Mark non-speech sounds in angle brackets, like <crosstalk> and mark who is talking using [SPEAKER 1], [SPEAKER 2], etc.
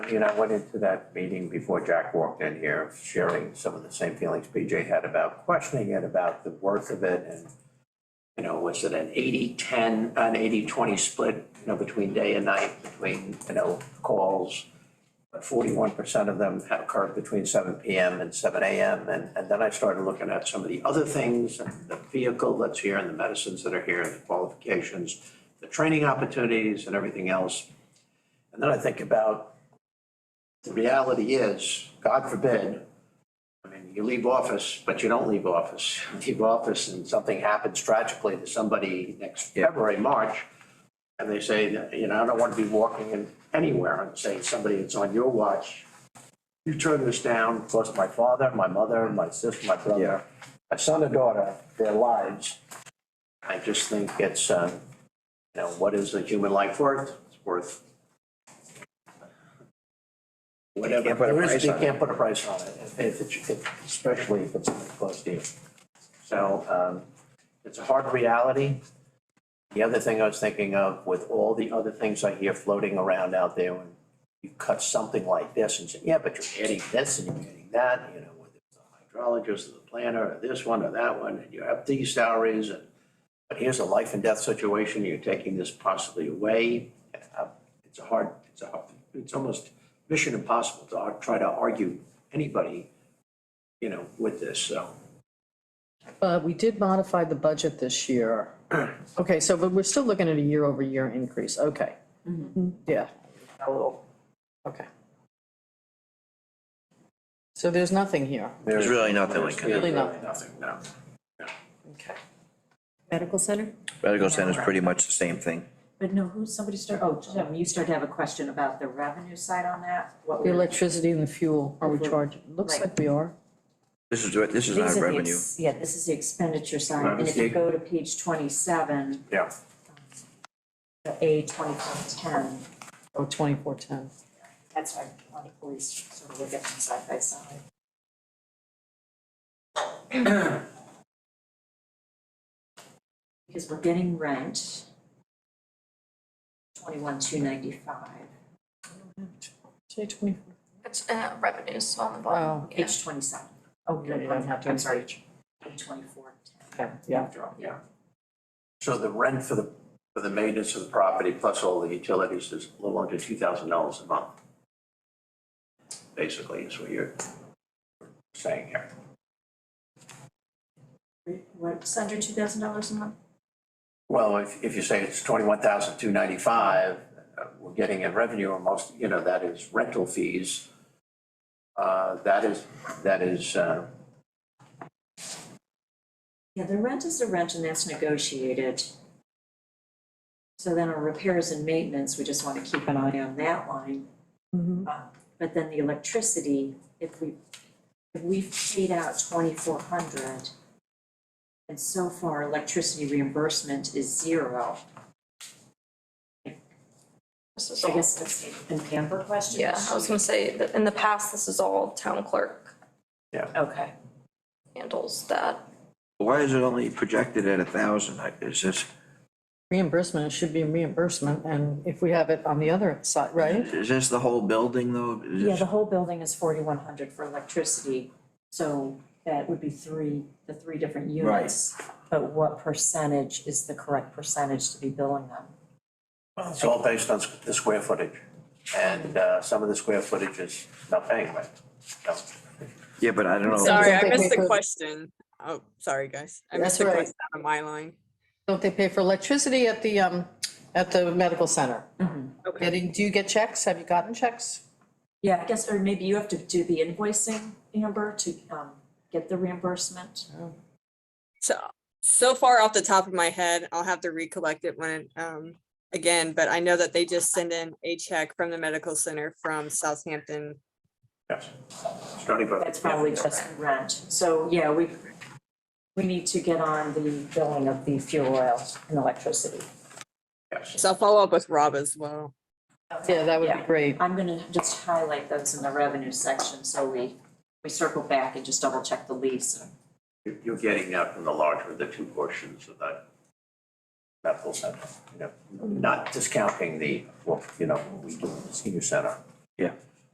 [SPEAKER 1] You know, I went into that meeting before Jack walked in here, sharing some of the same feelings PJ had about questioning it, about the worth of it and, you know, was it an 80-10, an 80-20 split, you know, between day and night, between, you know, calls? Forty-one percent of them had occurred between seven PM and seven AM. And, and then I started looking at some of the other things, and the vehicle that's here and the medicines that are here, and the qualifications, the training opportunities and everything else. And then I think about the reality is, God forbid, I mean, you leave office, but you don't leave office. You Leave office and something happens tragically to somebody next February, March, and they say, you know, I don't want to be walking in anywhere and say, somebody that's on your watch, you turn this down, cost my father, my mother, my sister, my brother, my son or daughter, their lives. I just think it's, uh, you know, what is a human life worth? It's worth whatever.
[SPEAKER 2] can't put a
[SPEAKER 1] There is-
[SPEAKER 2] price
[SPEAKER 1] you
[SPEAKER 2] on it.
[SPEAKER 1] can't put a price on it, if- if it's- if- especially if it's something close to you. So um, it's a hard reality. The other thing I was thinking of, with all the other things I hear floating around out there, when you cut something like this and say, yeah, but you're adding this and you're adding that, you know, whether it's the hydrologist or the planner or this one or that one, and you have these salaries and, but here's a life and death situation, you're taking this possibly away. Uh, It's a hard, it's a, hard- it's almost mission impossible to ar- try to argue anybody, you know, with this, so.
[SPEAKER 3] Uh, we did modify the budget this <clears throat> year. Okay, so, but we're still looking at a year-over-year increase, okay. Yeah. Mm-hmm. A little. Okay. So there's nothing here,
[SPEAKER 2] There's really nothing like it.
[SPEAKER 3] really nothing,
[SPEAKER 1] Nothing, no.
[SPEAKER 3] okay.
[SPEAKER 4] Medical center?
[SPEAKER 2] Medical center's pretty much the same thing.
[SPEAKER 4] But no, who, somebody started, oh, Jim, you started to have a question about the revenue side on that? What
[SPEAKER 3] The
[SPEAKER 4] were-
[SPEAKER 3] electricity and the fuel, are we
[SPEAKER 4] Mhm.
[SPEAKER 3] charging, looks
[SPEAKER 4] Right.
[SPEAKER 3] like we are.
[SPEAKER 2] This is, this is
[SPEAKER 4] These are
[SPEAKER 2] not
[SPEAKER 4] the
[SPEAKER 2] revenue.
[SPEAKER 4] ex- Yeah, this is the expenditure
[SPEAKER 1] Right,
[SPEAKER 4] side, and if you
[SPEAKER 1] okay.
[SPEAKER 4] go to page twenty-seven,
[SPEAKER 1] Yeah.
[SPEAKER 4] the A twenty-four ten,
[SPEAKER 3] Oh, twenty-four ten.
[SPEAKER 4] that's why I wanted to always sort of look at them side by side. Because we're getting rent, twenty-one, two ninety-five,
[SPEAKER 3] Say twenty-four.
[SPEAKER 5] It's uh, revenues on the
[SPEAKER 3] Wow.
[SPEAKER 5] bottom. yeah.
[SPEAKER 4] page twenty-seven. Oh,
[SPEAKER 3] Yeah, you don't have to
[SPEAKER 4] I'm sorry, page twenty-four, ten.
[SPEAKER 3] Okay, yeah.
[SPEAKER 4] After all,
[SPEAKER 1] Yeah. So the rent for the, for the maintenance of the property plus all the utilities is a little under two thousand dollars a month. Basically, is what you're saying here.
[SPEAKER 4] What, it's under two thousand dollars a month?
[SPEAKER 1] Well, if, if you say it's twenty-one thousand two ninety-five, we're getting in revenue almost, you know, that is rental fees. Uh, that is, that is, uh,
[SPEAKER 4] Yeah, the rent is the rent and that's negotiated. So then our repairs and maintenance, we just wanna keep an eye on that line. Uh, But then the electricity, if we, if we've paid out twenty-four hundred, and so far electricity reimbursement is zero.
[SPEAKER 5] This is
[SPEAKER 4] I
[SPEAKER 5] all,
[SPEAKER 4] guess that's a Pamper question?
[SPEAKER 5] yeah, I was gonna say that in the past, this is all town clerk
[SPEAKER 4] Okay.
[SPEAKER 5] handles that.
[SPEAKER 2] Why is it only projected at a thousand? Is this,
[SPEAKER 3] Reimbursement, it should be reimbursement, and if we have it on the other side, right?
[SPEAKER 2] is this the whole building though? Is
[SPEAKER 4] Yeah,
[SPEAKER 2] this-
[SPEAKER 4] the whole building is forty-one hundred for electricity, so that would be three, the three different units. But what percentage is the correct percentage to be billing them?
[SPEAKER 1] it's all based on s- the square footage. And, uh, some of the square footage is not paying rent, no.
[SPEAKER 2] Yeah, but I don't know.
[SPEAKER 6] Sorry,
[SPEAKER 3] Something
[SPEAKER 6] I missed
[SPEAKER 3] paper.
[SPEAKER 6] the question. Oh, sorry, guys. I
[SPEAKER 3] That's
[SPEAKER 6] missed the
[SPEAKER 3] right.
[SPEAKER 6] question on my line.
[SPEAKER 3] Don't they pay for electricity at the, um, at the medical center?
[SPEAKER 6] Okay,
[SPEAKER 3] Getting, do you get checks? Have you gotten checks?
[SPEAKER 4] Yeah, I guess, or maybe you have to do the invoicing, Amber, to um get the reimbursement.
[SPEAKER 6] so, so far off the top of my head, I'll have to recollect it when, um, again, but I know that they just send in a check from the medical center from Southampton.
[SPEAKER 1] Yes. It's not even-
[SPEAKER 4] That's probably just the rent, so yeah, we we need to get on the billing of the fuel oil and electricity.
[SPEAKER 1] Yes.
[SPEAKER 6] So I'll follow up with Rob as well.
[SPEAKER 3] Yeah, that would be
[SPEAKER 4] Yeah.
[SPEAKER 3] great.
[SPEAKER 4] I'm gonna just highlight those in the revenue section, so we we circle back and just double check the lease.
[SPEAKER 1] You- You're getting that from the larger of the two portions of that medical center, you know, not discounting the, well, you know, we do in the senior center.
[SPEAKER 2] Yeah.